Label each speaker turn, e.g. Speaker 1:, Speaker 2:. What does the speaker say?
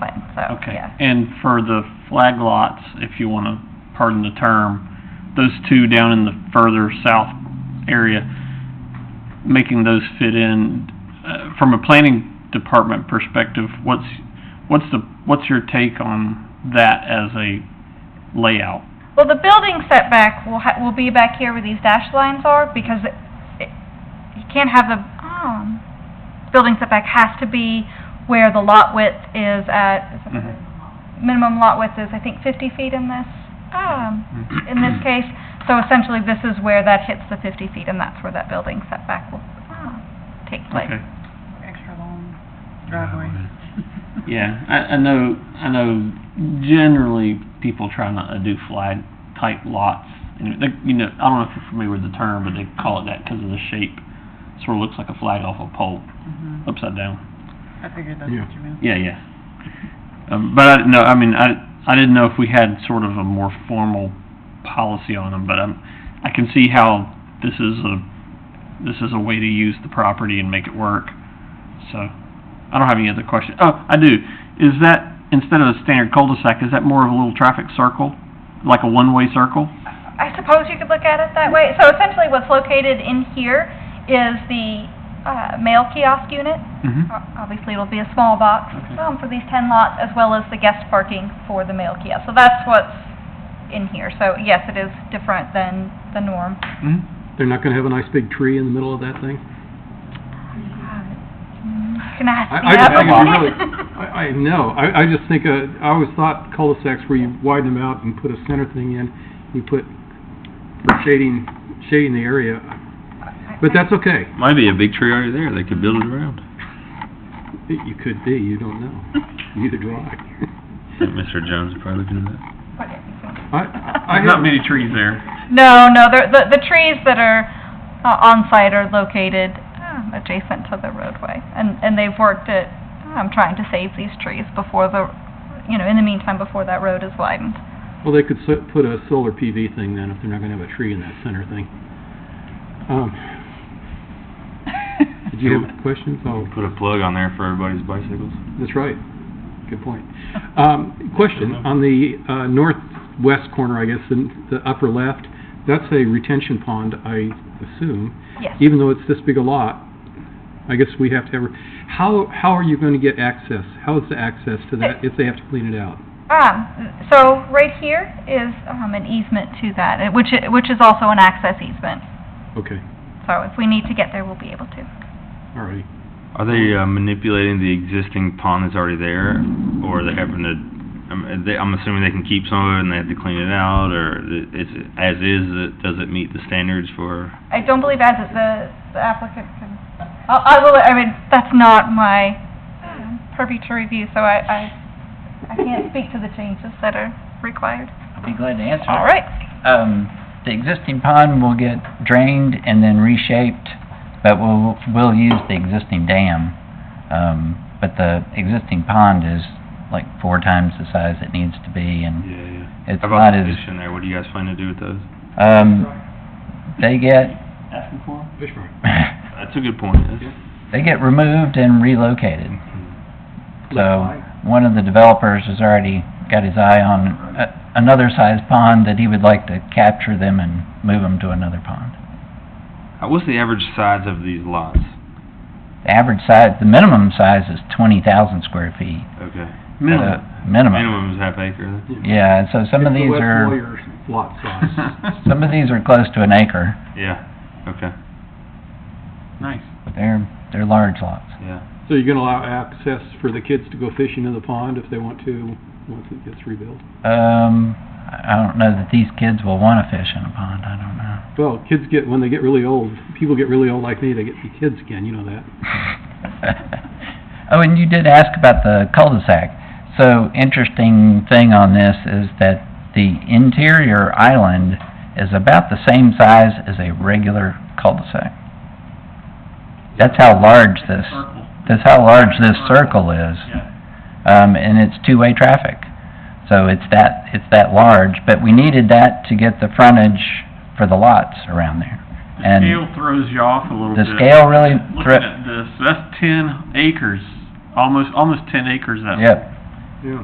Speaker 1: so,
Speaker 2: Okay,
Speaker 1: yeah.
Speaker 2: and for the flag lots, if you want to pardon the term, those two down in the further south area, making those fit in, uh, from a planning department perspective, what's, what's the, what's your take on that as a layout?
Speaker 1: Well, the building setback will ha, will be back here where these dashed lines are, because it, it- you can't have the, um, building setback has to be where the lot width is at, is it-
Speaker 2: Mhm.
Speaker 1: minimum lot width is, I think, fifty feet in this, um, in this case. So essentially, this is where that hits the fifty feet, and that's where that building setback will, um, take place.
Speaker 2: Okay,
Speaker 3: extra long driveway.
Speaker 2: yeah, I, I know, I know generally people try not to do flag type lots. And they, you know, I don't know if you're familiar with the term, but they call it that because of the shape. Sort of looks like a flag off a pole,
Speaker 3: Mhm.
Speaker 2: upside down.
Speaker 3: I figured that's what you meant.
Speaker 2: Yeah, yeah. Um, but I didn't know, I mean, I, I didn't know if we had sort of a more formal policy on them, but i I can see how this is a, this is a way to use the property and make it work. So, I don't have any other questions. Oh, I do. Is that, instead of a standard cul-de-sac, is that more of a little traffic circle? Like a one-way circle?
Speaker 1: I suppose you could look at it that way. So essentially, what's located in here is the uh, mail kiosk unit.
Speaker 2: Mm-hmm.
Speaker 1: O- Obviously, it'll be a small box
Speaker 2: Okay.
Speaker 1: um, for these 10 lots, as well as the guest parking for the mail kiosk. So that's what's in here. So yes, it is different than the norm.
Speaker 2: mm-hmm.
Speaker 4: They're not gonna have a nice big tree in the middle of that thing?
Speaker 1: Can I ask
Speaker 4: I-
Speaker 1: the
Speaker 4: I just think it'd be
Speaker 1: applicant?
Speaker 4: I, I know, I, I just think, uh, I always thought cul-de-sacs where you widen them out and put a center thing in, you put, for shading, shading the area, but that's okay.
Speaker 5: Might be a big tree already there, they could build it around.
Speaker 4: It- You could be, you don't know, neither do I.
Speaker 5: I think Mr. Jones is probably looking at that.
Speaker 4: I, I
Speaker 2: There's not
Speaker 4: have,
Speaker 2: many trees there.
Speaker 1: No, no, they're- the, the trees that are uh, on site are located um, adjacent to the roadway. And, and they've worked at, um, trying to save these trees before the, you know, in the meantime, before that road is widened.
Speaker 4: well, they could so- put a solar PV thing then, if they're not gonna have a tree in that center thing. Um, did you have questions? Oh,
Speaker 5: Put a plug on there for everybody's bicycles.
Speaker 4: That's right. Good point. Um, Question, on the uh, northwest corner, I guess, in the upper left, that's a retention pond, I assume,
Speaker 1: Yes.
Speaker 4: even though it's this big a lot. I guess we have to have, how, how are you going to get access? How is the access to that if they have to clean it out?
Speaker 1: Um, so right here is, um, an easement to that, eh, which, i- which is also an access easement.
Speaker 4: Okay,
Speaker 1: So if we need to get there, we'll be able to.
Speaker 4: all righty.
Speaker 5: Are they uh, manipulating the existing pond that's already there, or are they having to, I'm, uh, they- I'm assuming they can keep some of it and they have to clean it out, or i- is it, as is, it- does it meet the standards for?
Speaker 1: I don't believe as it, the the applicant can, I, I will, I mean, that's not my um, purview to review, so I, I, I can't speak to the changes that are required.
Speaker 6: I'll be glad to answer.
Speaker 1: All
Speaker 6: it.
Speaker 1: right.
Speaker 6: Um, the existing pond will get drained and then reshaped, but we'll, we'll use the existing dam. Um, but the existing pond is like four times the size it needs to be and
Speaker 5: Yeah, yeah.
Speaker 6: it's
Speaker 5: How about
Speaker 6: not
Speaker 5: the
Speaker 6: as,
Speaker 5: fish in there, what do you guys plan to do with those?
Speaker 6: um, they get,
Speaker 2: Asking for 'em?
Speaker 4: Fish fry.
Speaker 5: That's a good point, that's.
Speaker 6: they get removed and relocated. So, one of the developers has already got his eye on a- another size pond that he would like to capture them and move them to another pond.
Speaker 5: Uh, What's the average size of these lots?
Speaker 6: The average size, the minimum size is twenty thousand square feet.
Speaker 5: Okay.
Speaker 2: Minimum.
Speaker 6: Uh, Minimum.
Speaker 5: Minimum is half acre.
Speaker 6: Yeah, and so some of
Speaker 4: It's the
Speaker 6: these
Speaker 4: West
Speaker 6: are,
Speaker 4: Lawyer's lot size.
Speaker 6: some of these are close to an acre.
Speaker 5: Yeah, okay,
Speaker 2: Nice.
Speaker 6: They're, they're large lots.
Speaker 5: yeah.
Speaker 4: So you're going to allow access for the kids to go fishing in the pond if they want to, once it gets rebuilt?
Speaker 6: Um, I I don't know that these kids will wanna fish in a pond, I don't know.
Speaker 4: Well, kids get, when they get really old, people get really old like me, they get to be kids again, you know that.
Speaker 6: Oh, and you did ask about the cul-de-sac. So interesting thing on this is that the interior island is about the same size as a regular cul-de-sac. That's how large this,
Speaker 2: Circle.
Speaker 6: that's how large this circle is.
Speaker 2: Yeah.
Speaker 6: Um, and it's two-way traffic. So it's that, it's that large, but we needed that to get the frontage for the lots around there.
Speaker 2: The
Speaker 6: And-
Speaker 2: scale throws you off a little
Speaker 6: The
Speaker 2: bit.
Speaker 6: scale really,
Speaker 2: Looking
Speaker 6: thre-
Speaker 2: at this, that's ten acres, almost, almost ten acres that
Speaker 6: yep,